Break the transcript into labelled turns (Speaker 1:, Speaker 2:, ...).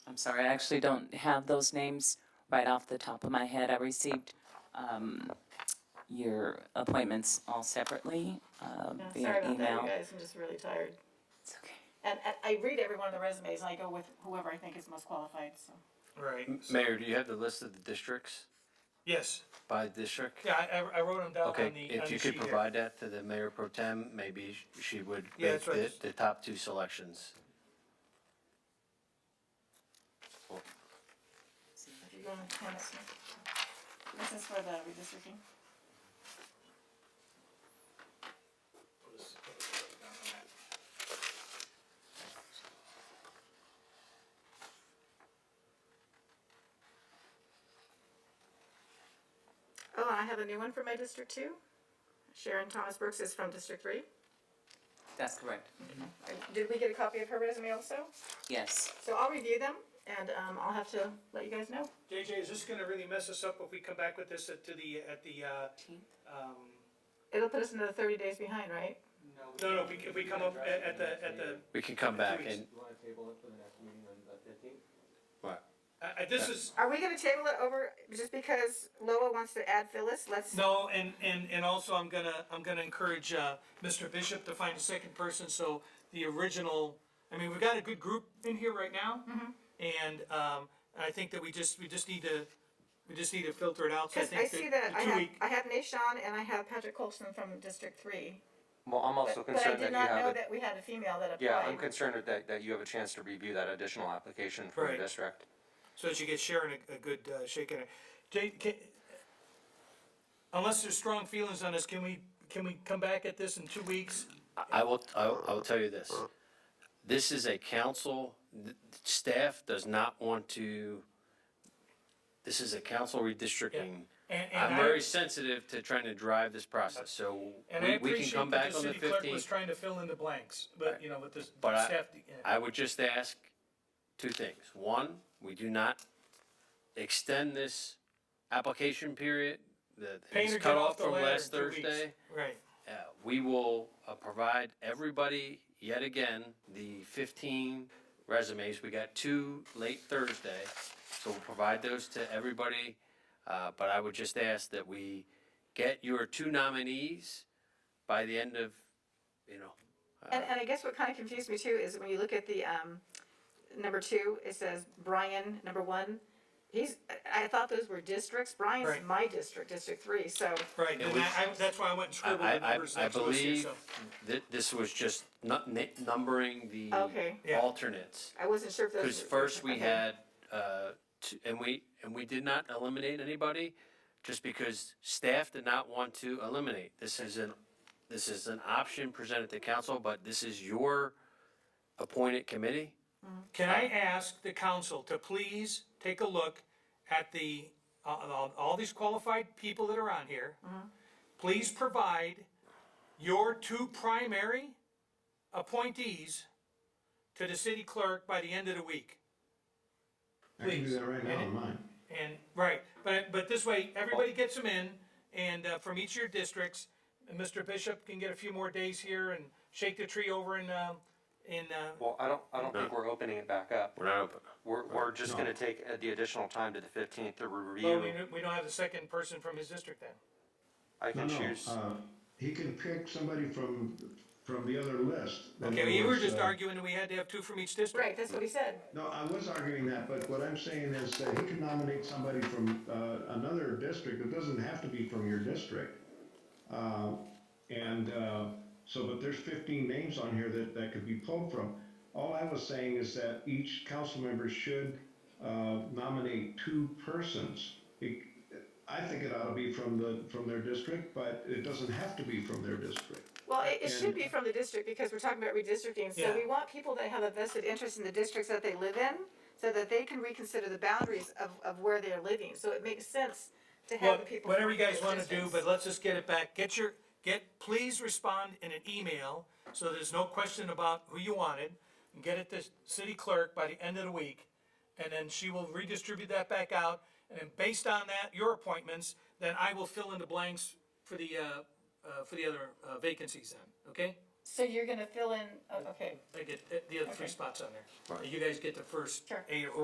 Speaker 1: I'm sorry, I actually don't have those names right off the top of my head. I received um, your appointments all separately uh,
Speaker 2: Yeah, Sorry
Speaker 1: via
Speaker 2: about that, you
Speaker 1: email.
Speaker 2: guys, I'm just really tired.
Speaker 1: It's okay.
Speaker 2: And, and I read every one of the resumes and I go with whoever I think is most qualified, so.
Speaker 3: Right. so-
Speaker 4: Mayor, do you have the list of the districts
Speaker 3: Yes,
Speaker 4: by district?
Speaker 3: yeah, I- I, I wrote them down on the,
Speaker 4: Okay,
Speaker 3: on the
Speaker 4: if you
Speaker 3: sheet
Speaker 4: could
Speaker 3: here.
Speaker 4: provide that to the mayor pro tem, maybe sh- she would
Speaker 3: Yeah,
Speaker 4: make
Speaker 3: that's right.
Speaker 4: the, the top two selections.
Speaker 2: if you wanna hand this one. This is for the redistricting. Oh, I have a new one for my district two. Sharon Thomas Brooks is from District Three.
Speaker 1: That's correct.
Speaker 2: Did we get a copy of her resume also?
Speaker 1: Yes.
Speaker 2: So I'll review them and, um, I'll have to let you guys know.
Speaker 3: JJ, is this gonna really mess us up if we come back with this at, to the, at the, uh, um,
Speaker 2: It'll put us another thirty days behind, right?
Speaker 3: no, no, if we, if we come up at, at the, at the,
Speaker 4: We can come back and,
Speaker 5: You wanna table it for the next meeting on the fifteenth?
Speaker 3: I, I, this is,
Speaker 2: Are we gonna table it over, just because Loa wants to add Phyllis, let's,
Speaker 3: no, and, and, and also I'm gonna, I'm gonna encourage, uh, Mr. Bishop to find a second person, so the original, I mean, we've got a good group in here right now.
Speaker 2: Mm-hmm.
Speaker 3: And, um, I think that we just, we just need to, we just need to filter it out, so I
Speaker 2: cause
Speaker 3: think
Speaker 2: I
Speaker 3: that
Speaker 2: see that,
Speaker 3: the
Speaker 2: I
Speaker 3: two
Speaker 2: have,
Speaker 3: week-
Speaker 2: I have Nashawn and I have Patrick Colson from District Three.
Speaker 5: Well, I'm also
Speaker 2: But but I
Speaker 5: concerned that
Speaker 2: did
Speaker 5: you
Speaker 2: not
Speaker 5: have
Speaker 2: know
Speaker 5: a,
Speaker 2: that we had a female that applied.
Speaker 5: yeah, I'm concerned with that, that you have a chance to review that additional application for
Speaker 3: Right.
Speaker 5: the district.
Speaker 3: So that you get Sharon a, a good uh, shake in it. Jay, can, unless there's strong feelings on this, can we, can we come back at this in two weeks?
Speaker 4: I will, I will, I will tell you this. This is a council, th- staff does not want to, this is a council redistricting.
Speaker 3: And, and
Speaker 4: I'm
Speaker 3: I,
Speaker 4: very sensitive to trying to drive this process, so
Speaker 3: and I
Speaker 4: we, we can
Speaker 3: appreciate that
Speaker 4: come back
Speaker 3: the
Speaker 4: on the
Speaker 3: city clerk was
Speaker 4: fifteenth.
Speaker 3: trying to fill in the blanks, but, you know, with this
Speaker 4: But I-
Speaker 3: staff.
Speaker 4: I would just ask two things. One, we do not extend this application period that
Speaker 3: Painter,
Speaker 4: is
Speaker 3: get
Speaker 4: cut off
Speaker 3: the
Speaker 4: from
Speaker 3: ladder
Speaker 4: last
Speaker 3: in two weeks.
Speaker 4: Thursday.
Speaker 3: Right,
Speaker 4: Uh, We will uh, provide everybody, yet again, the 15 resumes. We got two late Thursday, so we'll provide those to everybody. Uh, But I would just ask that we get your two nominees by the end of, you know,
Speaker 2: And, and I guess what kind of confused me too is when you look at the, um, number two, it says Brian, number one. He's, I, I thought those were districts, Brian's
Speaker 3: Right.
Speaker 2: my district, District Three, so,
Speaker 3: right, and
Speaker 4: we-
Speaker 3: I, I, that's why I went and
Speaker 4: I,
Speaker 3: scribbled the
Speaker 4: I,
Speaker 3: numbers
Speaker 4: I
Speaker 3: next to us here,
Speaker 4: believe
Speaker 3: so.
Speaker 4: that this was just nu- ni- numbering the
Speaker 2: Okay.
Speaker 3: Yeah.
Speaker 4: alternates.
Speaker 2: I wasn't sure if those.
Speaker 4: Because
Speaker 2: were-
Speaker 4: first we
Speaker 2: okay.
Speaker 4: had, uh, two- and we, and we did not eliminate anybody, just because staff did not want to eliminate. This is an, this is an option presented to council, but this is your appointed committee.
Speaker 3: Can I ask the council to please take a look at the, uh, all, all these qualified people that are on here? Please provide your two primary appointees to the city clerk by the end of the week.
Speaker 6: I can do
Speaker 3: Please.
Speaker 6: that right now on mine.
Speaker 3: And, right, but, but this way, everybody gets them in, and, uh, from each of your districts, and Mr. Bishop can get a few more days here and shake the tree over in, um, in, uh,
Speaker 5: Well, I don't, I don't think we're opening it back up.
Speaker 4: We're not open.
Speaker 5: We're, we're just gonna take uh, the additional time to the fifteenth to
Speaker 3: well, we,
Speaker 5: review.
Speaker 3: don't- we don't have the second person from his district then.
Speaker 5: I
Speaker 6: No,
Speaker 5: can
Speaker 6: no,
Speaker 5: choose.
Speaker 6: uh, he can pick somebody from, from the other list. In
Speaker 3: Okay,
Speaker 6: other
Speaker 3: we were
Speaker 6: words,
Speaker 3: just
Speaker 6: uh,
Speaker 3: arguing that we had to have two from each district.
Speaker 2: Right, that's what he said.
Speaker 6: No, I was arguing that, but what I'm saying is that he can nominate somebody from, uh, another district, it doesn't have to be from your district. Uh, and, uh, so, but there's fifteen names on here that, that could be pulled from. All I was saying is that each council member should, uh, nominate two persons. It- I think it ought to be from the, from their district, but it doesn't have to be from their district.
Speaker 2: Well, it, it should
Speaker 6: And-
Speaker 2: be from the district because we're talking about redistricting, so
Speaker 3: Yeah.
Speaker 2: we want people that have a vested interest in the districts that they live in, so that they can reconsider the boundaries of, of where they're living, so it makes sense to have the
Speaker 3: Well,
Speaker 2: people.
Speaker 3: whatever
Speaker 2: from
Speaker 3: you guys
Speaker 2: those
Speaker 3: wanna do,
Speaker 2: districts.
Speaker 3: but let's just get it back. Get your, get, please respond in an email, so there's no question about who you wanted. and Get it to city clerk by the end of the week, and then she will redistribute that back out. And then based on that, your appointments, then I will fill in the blanks for the, uh, uh, for the other uh, vacancies then, okay?
Speaker 2: So you're gonna fill in, oh, okay.
Speaker 3: I get uh, the other three spots on there. You guys get the first
Speaker 2: Sure.
Speaker 3: A or